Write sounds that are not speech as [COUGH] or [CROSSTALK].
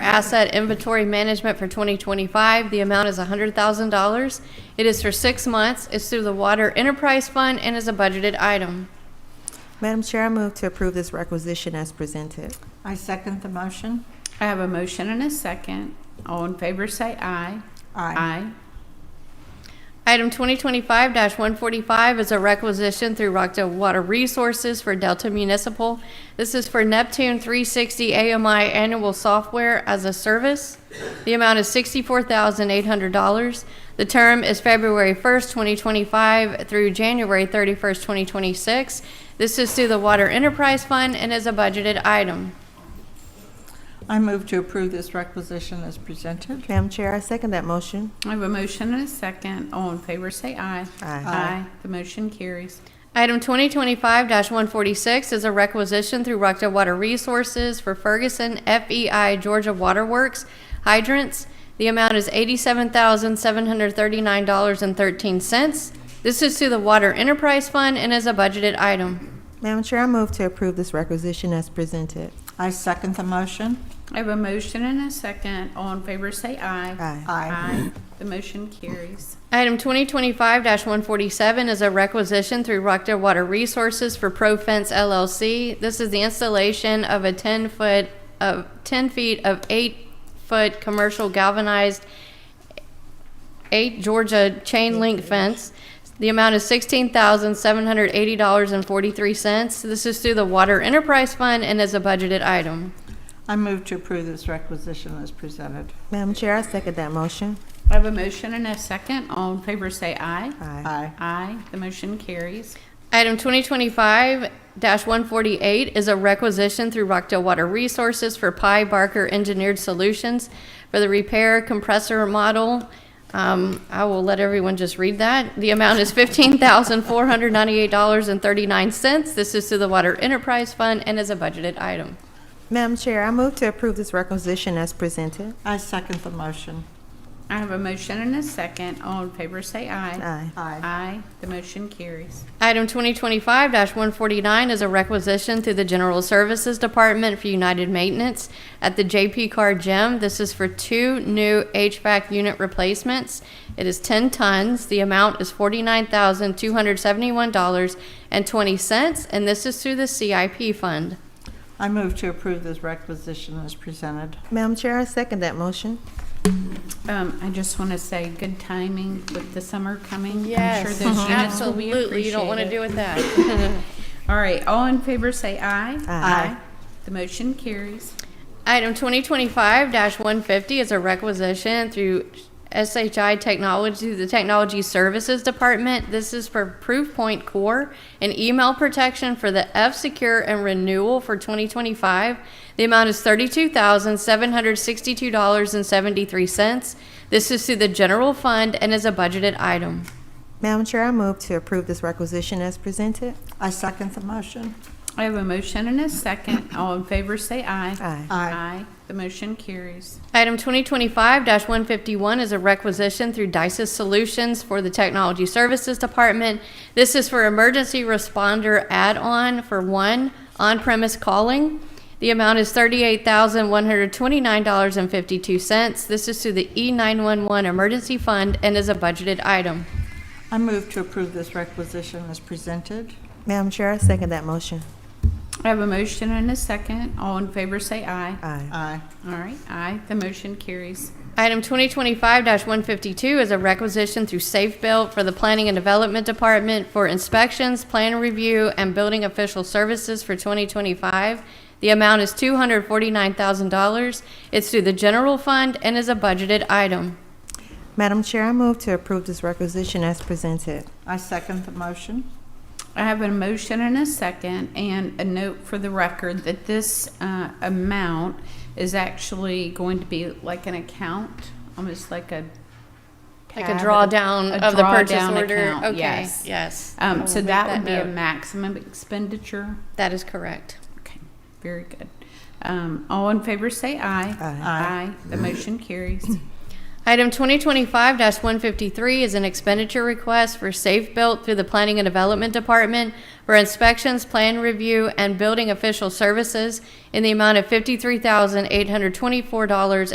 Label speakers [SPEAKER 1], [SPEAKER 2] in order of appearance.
[SPEAKER 1] asset inventory management for 2025. The amount is $100,000. It is for six months. It's through the Water Enterprise Fund and is a budgeted item.
[SPEAKER 2] Madam Chair, I move to approve this requisition as presented.
[SPEAKER 3] I second the motion.
[SPEAKER 4] I have a motion and a second. All in favor say aye. Aye.
[SPEAKER 1] Item 2025-145 is a requisition through Rockdale Water Resources for Delta Municipal. This is for Neptune 360 AMI Annual Software as a Service. The amount is $64,800. The term is February 1st, 2025 through January 31st, 2026. This is through the Water Enterprise Fund and is a budgeted item.
[SPEAKER 3] I move to approve this requisition as presented.
[SPEAKER 2] Madam Chair, I second that motion.
[SPEAKER 4] I have a motion and a second. All in favor say aye.
[SPEAKER 2] Aye.
[SPEAKER 4] Aye. The motion carries.
[SPEAKER 1] Item 2025-146 is a requisition through Rockdale Water Resources for Ferguson FEI Georgia Water Works hydrants. The amount is $87,739.13. This is to the Water Enterprise Fund and is a budgeted item.
[SPEAKER 2] Madam Chair, I move to approve this requisition as presented.
[SPEAKER 3] I second the motion.
[SPEAKER 4] I have a motion and a second. All in favor say aye.
[SPEAKER 2] Aye.
[SPEAKER 4] Aye. The motion carries.
[SPEAKER 1] Item 2025-147 is a requisition through Rockdale Water Resources for ProFence LLC. This is the installation of a 10-foot, of 10 feet of 8-foot commercial galvanized eight Georgia chain link fence. The amount is sixteen thousand seven hundred eighty dollars and forty-three cents. This is through the Water Enterprise Fund and is a budgeted item.
[SPEAKER 3] I move to approve this requisition as presented.
[SPEAKER 2] Madam Chair, I second that motion.
[SPEAKER 4] I have a motion and a second. All in favor say aye.
[SPEAKER 2] Aye.
[SPEAKER 3] Aye.
[SPEAKER 4] Aye. The motion carries.
[SPEAKER 1] Item 2025-148 is a requisition through Rockdale Water Resources for Pi Barker Engineered Solutions for the repair compressor model. Um, I will let everyone just read that. The amount is $15,498.39. This is through the Water Enterprise Fund and is a budgeted item.
[SPEAKER 2] Madam Chair, I move to approve this requisition as presented.
[SPEAKER 3] I second the motion.
[SPEAKER 4] I have a motion and a second. All in favor say aye.
[SPEAKER 2] Aye.
[SPEAKER 3] Aye.
[SPEAKER 4] Aye. The motion carries.
[SPEAKER 1] Item 2025-149 is a requisition through the General Services Department for United Maintenance at the JP Carr Gym. This is for two new HVAC unit replacements. It is 10 tons. The amount is $49,271.20, and this is through the CIP fund.
[SPEAKER 3] I move to approve this requisition as presented.
[SPEAKER 2] Madam Chair, I second that motion.
[SPEAKER 4] Um, I just want to say good timing with the summer coming. I'm sure those units will be
[SPEAKER 1] Mm-hmm. Absolutely. You don't want to
[SPEAKER 4] appreciated.
[SPEAKER 1] do with that.
[SPEAKER 4] [LAUGHS] All right, all in favor say aye.
[SPEAKER 2] Aye.
[SPEAKER 4] The motion carries.
[SPEAKER 1] Item 2025-150 is a requisition through SHI Technology, the Technology Services Department. This is for Proofpoint Core and email protection for the F-Secure and renewal for 2025. The amount is $32,762.73. This is through the general fund and is a budgeted item.
[SPEAKER 2] Madam Chair, I move to approve this requisition as presented.
[SPEAKER 3] I second the motion.
[SPEAKER 4] I have a motion and a second. All in favor say aye.
[SPEAKER 2] Aye.
[SPEAKER 4] Aye. The motion carries.
[SPEAKER 1] Item 2025-151 is a requisition through DICES Solutions for the Technology Services Department. This is for emergency responder add-on for one on-premise calling. The amount is $38,129.52. This is through the E E911 Emergency Fund and is a budgeted item.
[SPEAKER 3] I move to approve this requisition as presented.
[SPEAKER 2] Madam Chair, I second that motion.
[SPEAKER 4] I have a motion and a second. All in favor say aye.
[SPEAKER 2] Aye.
[SPEAKER 3] Aye.
[SPEAKER 4] All right, aye. The motion carries.
[SPEAKER 1] Item 2025-152 is a requisition through Safe Built for the Planning and Development Department for inspections, plan review, and building official services for 2025. The amount is $249,000. It's through the general fund and is a budgeted item.
[SPEAKER 2] Madam Chair, I move to approve this requisition as presented.
[SPEAKER 3] I second the motion.
[SPEAKER 4] I have a motion and a second, and a note for the record that this uh, amount is actually going to be like an account, almost like a.
[SPEAKER 1] Like a
[SPEAKER 4] tab,
[SPEAKER 1] drawdown
[SPEAKER 4] a
[SPEAKER 1] of the purchase
[SPEAKER 4] drawdown
[SPEAKER 1] order.
[SPEAKER 4] account,
[SPEAKER 1] Okay,
[SPEAKER 4] yes.
[SPEAKER 1] yes. I
[SPEAKER 4] Um,
[SPEAKER 1] will
[SPEAKER 4] So
[SPEAKER 1] make
[SPEAKER 4] that would be a
[SPEAKER 1] note.
[SPEAKER 4] maximum expenditure.
[SPEAKER 1] That is correct.
[SPEAKER 4] Okay, very good. Um, All in favor, say aye.
[SPEAKER 2] Aye.
[SPEAKER 4] Aye. The motion carries.
[SPEAKER 1] Item 2025-153 is an expenditure request for Safe Built through the Planning and Development Department for inspections, plan review, and building official services in the amount of $53,824.50.